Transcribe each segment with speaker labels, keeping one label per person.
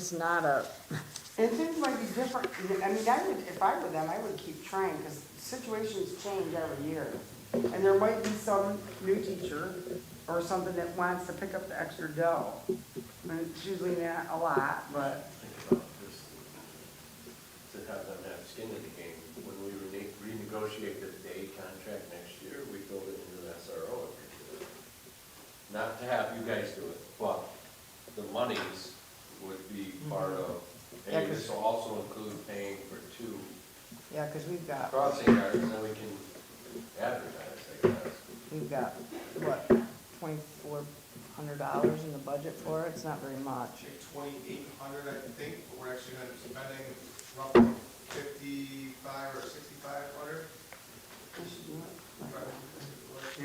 Speaker 1: It's not a,
Speaker 2: And things might be different, I mean, I would, if I were them, I would keep trying, because situations change every year. And there might be some new teacher or something that wants to pick up the extra dough. And it's usually not a lot, but,
Speaker 3: think about this, to have them have skin in the game. When we rene- renegotiate the day contract next year, we build it into an SRO. Not to have you guys do it, but the monies would be part of,
Speaker 2: Yeah,
Speaker 3: and
Speaker 2: 'cause-
Speaker 3: this will also include paying for two
Speaker 2: yeah, because we've got,
Speaker 3: crossing guards, and then we can advertise, I guess.
Speaker 2: we've got, what, twenty-four hundred dollars in the budget for it, it's not very much.
Speaker 4: twenty-eight hundred, I think, but we're actually gonna be spending roughly fifty-five or sixty-five hundred.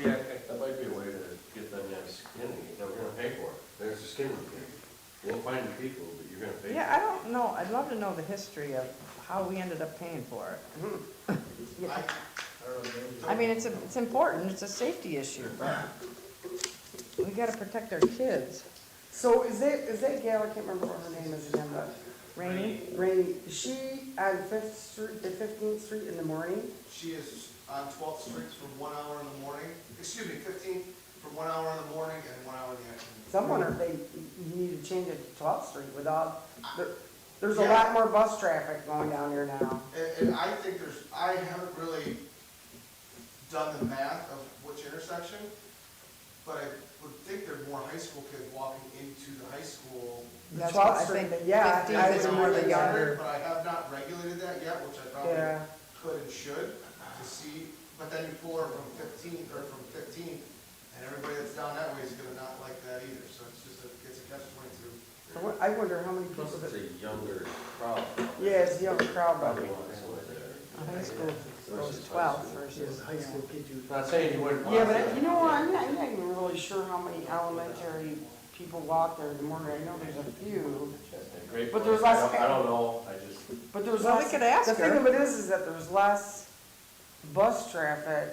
Speaker 3: Yeah. That might be a way to get them to have skin in the game, that we're gonna pay for it. There's the skin in the game. We'll find the people, but you're gonna pay for it.
Speaker 2: Yeah, I don't know, I'd love to know the history of how we ended up paying for it.
Speaker 4: I, I
Speaker 2: I mean, it's, a- it's important, it's a safety issue, but we gotta protect our kids.
Speaker 5: So is that, is that gal, I can't remember what her name is again, but
Speaker 2: Rainy,
Speaker 5: Rainy, is she on Fifth Street, the Fifteenth Street in the morning?
Speaker 4: She is on Twelfth Street from one hour in the morning, excuse me, fifteen, from one hour in the morning and one hour in the afternoon.
Speaker 5: Someone, if they, you need to change it to Twelfth Street without, there, there's a
Speaker 4: Yeah.
Speaker 5: lot more bus traffic going down here now.
Speaker 4: And, and I think there's, I haven't really done the math of which intersection, but I would think there's more high school kids walking into the high school.
Speaker 2: That's what I
Speaker 5: Twelfth
Speaker 2: think.
Speaker 5: Street, yeah,
Speaker 2: 15th
Speaker 5: I
Speaker 2: is
Speaker 5: was
Speaker 4: I'm
Speaker 5: more the
Speaker 4: concerned,
Speaker 5: younger,
Speaker 4: But I have not regulated that yet, which I probably
Speaker 5: yeah.
Speaker 4: could and should to see, but then you pull her from fifteen, or from fifteen, and everybody that's down that way is gonna not like that either, so it's just a, it's a catch twenty-two.
Speaker 5: I wo- I wonder how many people
Speaker 3: Plus it's
Speaker 5: that,
Speaker 3: a younger crowd.
Speaker 5: yeah, it's young crowd out
Speaker 3: Probably
Speaker 5: here.
Speaker 3: wants to live there.
Speaker 2: a high school goes
Speaker 3: Versus high
Speaker 2: twelve
Speaker 3: school.
Speaker 2: versus, you know.
Speaker 3: Not saying you wouldn't want
Speaker 5: Yeah,
Speaker 3: to.
Speaker 5: but you know, I'm not, I'm not even really sure how many elementary people walk there in the morning, I know there's a few.
Speaker 3: Great
Speaker 5: but
Speaker 3: point.
Speaker 5: there's
Speaker 3: I
Speaker 5: less-
Speaker 3: don't- I don't know, I just,
Speaker 5: But there's
Speaker 2: Well, we
Speaker 5: less,
Speaker 2: could ask
Speaker 5: the thing
Speaker 2: her.
Speaker 5: of it is, is that there's less bus traffic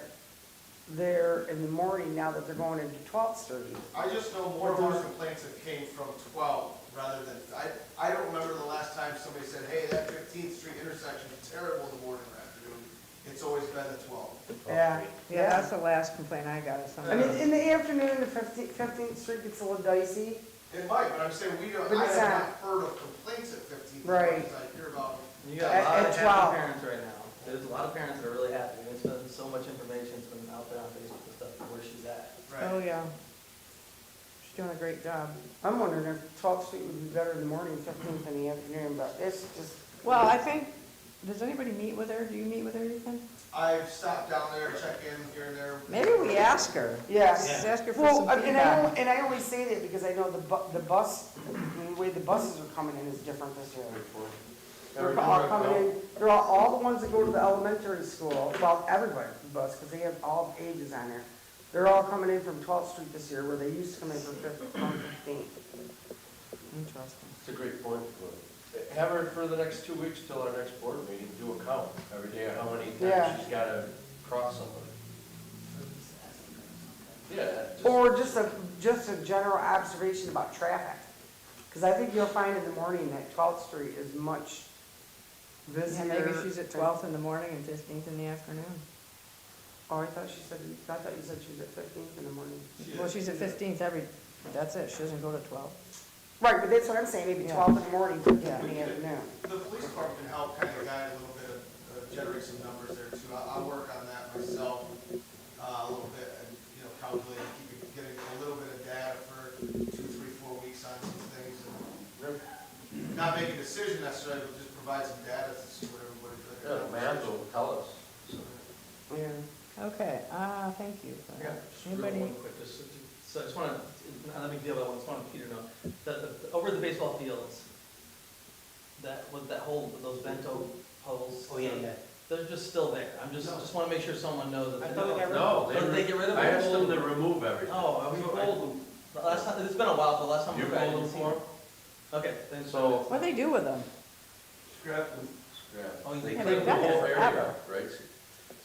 Speaker 5: there in the morning now that they're going into Twelfth Street.
Speaker 4: I just know more of our complaints that came from twelve rather than, I, I don't remember the last time somebody said, hey, that fifteenth street intersection is terrible in the morning or afternoon. It's always been the twelve.
Speaker 5: Yeah,
Speaker 2: Yeah, that's
Speaker 5: yeah.
Speaker 2: the last complaint I got of
Speaker 5: I
Speaker 2: somebody.
Speaker 5: mean, in the afternoon, the Fifteenth, Fifteenth Street gets a little dicey.
Speaker 4: It might, but I'm saying we don't,
Speaker 5: But
Speaker 4: I
Speaker 5: it's
Speaker 4: have
Speaker 5: not-
Speaker 4: not heard of complaints at fifteen.
Speaker 5: Right.
Speaker 4: I hear about
Speaker 6: You got
Speaker 5: At-
Speaker 6: a lot
Speaker 5: at
Speaker 6: of
Speaker 5: 12.
Speaker 6: happy parents right now. There's a lot of parents that are really happy. There's been so much information that's been out there on Facebook and stuff, where she's at.
Speaker 2: Oh, yeah. She's doing a great job.
Speaker 5: I'm wondering if Twelfth Street would be better in the morning, Fifteenth in the afternoon, but it's just,
Speaker 2: Well, I think, does anybody meet with her? Do you meet with her, Ethan?
Speaker 4: I've stopped down there, check in here and there.
Speaker 2: Maybe we ask her.
Speaker 5: yeah.
Speaker 2: Just ask her for
Speaker 5: Well,
Speaker 2: some
Speaker 5: and I, al-
Speaker 2: feedback.
Speaker 5: and I always say that because I know the bu, the bus, the way the buses are coming in is different this year.
Speaker 3: great point.
Speaker 5: They're all coming in, they're all, all the ones that go to the elementary school, well, everybody from bus, because they have all ages on there. They're all coming in from twelfth street this year, where they used to come in from fifth, from fifteenth.
Speaker 2: Interesting.
Speaker 3: It's a great point. Lou. Have her for the next two weeks till our next board meeting, do a count every day of how many
Speaker 5: Yeah.
Speaker 3: times she's got to cross somebody. Yeah. just-
Speaker 5: Or just a, just a general observation about traffic, because I think you'll find in the morning that twelfth street is much
Speaker 2: Yeah,
Speaker 5: busier.
Speaker 2: maybe she's at twelfth in the morning and fifteenth in the afternoon.
Speaker 5: Oh, I thought she said, I thought you said she was at fifteenth in the morning.
Speaker 2: Well, she's at fifteenth every, that's it. She doesn't go to twelve.
Speaker 5: Right, but that's what I'm saying, maybe
Speaker 2: Yeah.
Speaker 5: twelve in the morning,
Speaker 2: Yeah.
Speaker 5: fifteenth in the afternoon.
Speaker 4: The police department can help kind of guide a little bit, of- uh, generate some numbers there too. I'll, I'll work on that myself, uh, a little bit and, you know, calculate, keep it- getting a little bit of data for two, three, four weeks on some things. and Not make a decision necessarily, but just provide some data to see what everybody.
Speaker 3: Yeah, the math will tell us. So,
Speaker 5: Yeah.
Speaker 2: Okay, uh, thank you. for
Speaker 6: Yeah,
Speaker 2: that.
Speaker 6: just real
Speaker 2: Anybody?
Speaker 6: one quick, just, so I just wanna, not a big deal, but I just wanna Peter know, that, the- over the baseball fields, that, with that whole, with those bento poles.
Speaker 5: Oh,
Speaker 6: They're just still there. I'm just,
Speaker 4: No.
Speaker 6: just wanna make sure someone knows that.
Speaker 5: I
Speaker 6: they
Speaker 5: thought we
Speaker 6: don't-
Speaker 5: got rid
Speaker 3: No,
Speaker 6: Don't they
Speaker 3: they,
Speaker 6: get rid of
Speaker 3: I
Speaker 6: them?
Speaker 3: asked them to remove everything.
Speaker 6: Oh, I was told, the last time, it's been a while, the last time.
Speaker 3: You
Speaker 6: we were at
Speaker 3: pulled them
Speaker 6: NC.
Speaker 3: for 'em?
Speaker 6: Okay, thanks.
Speaker 3: So-
Speaker 2: What do they do with them?
Speaker 4: Scrap and
Speaker 3: Yeah,
Speaker 6: Oh, you
Speaker 3: they
Speaker 6: can
Speaker 3: cleaned
Speaker 6: make
Speaker 3: the
Speaker 6: that
Speaker 3: whole
Speaker 2: happen.
Speaker 3: area up, right?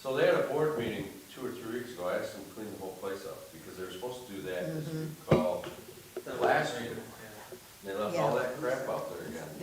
Speaker 3: So they had a board meeting two or three weeks ago, I asked them to clean the whole place up, because they were supposed to do that, as we call,
Speaker 6: The-
Speaker 3: last year.
Speaker 6: Yeah.
Speaker 3: They left all that crap out there again.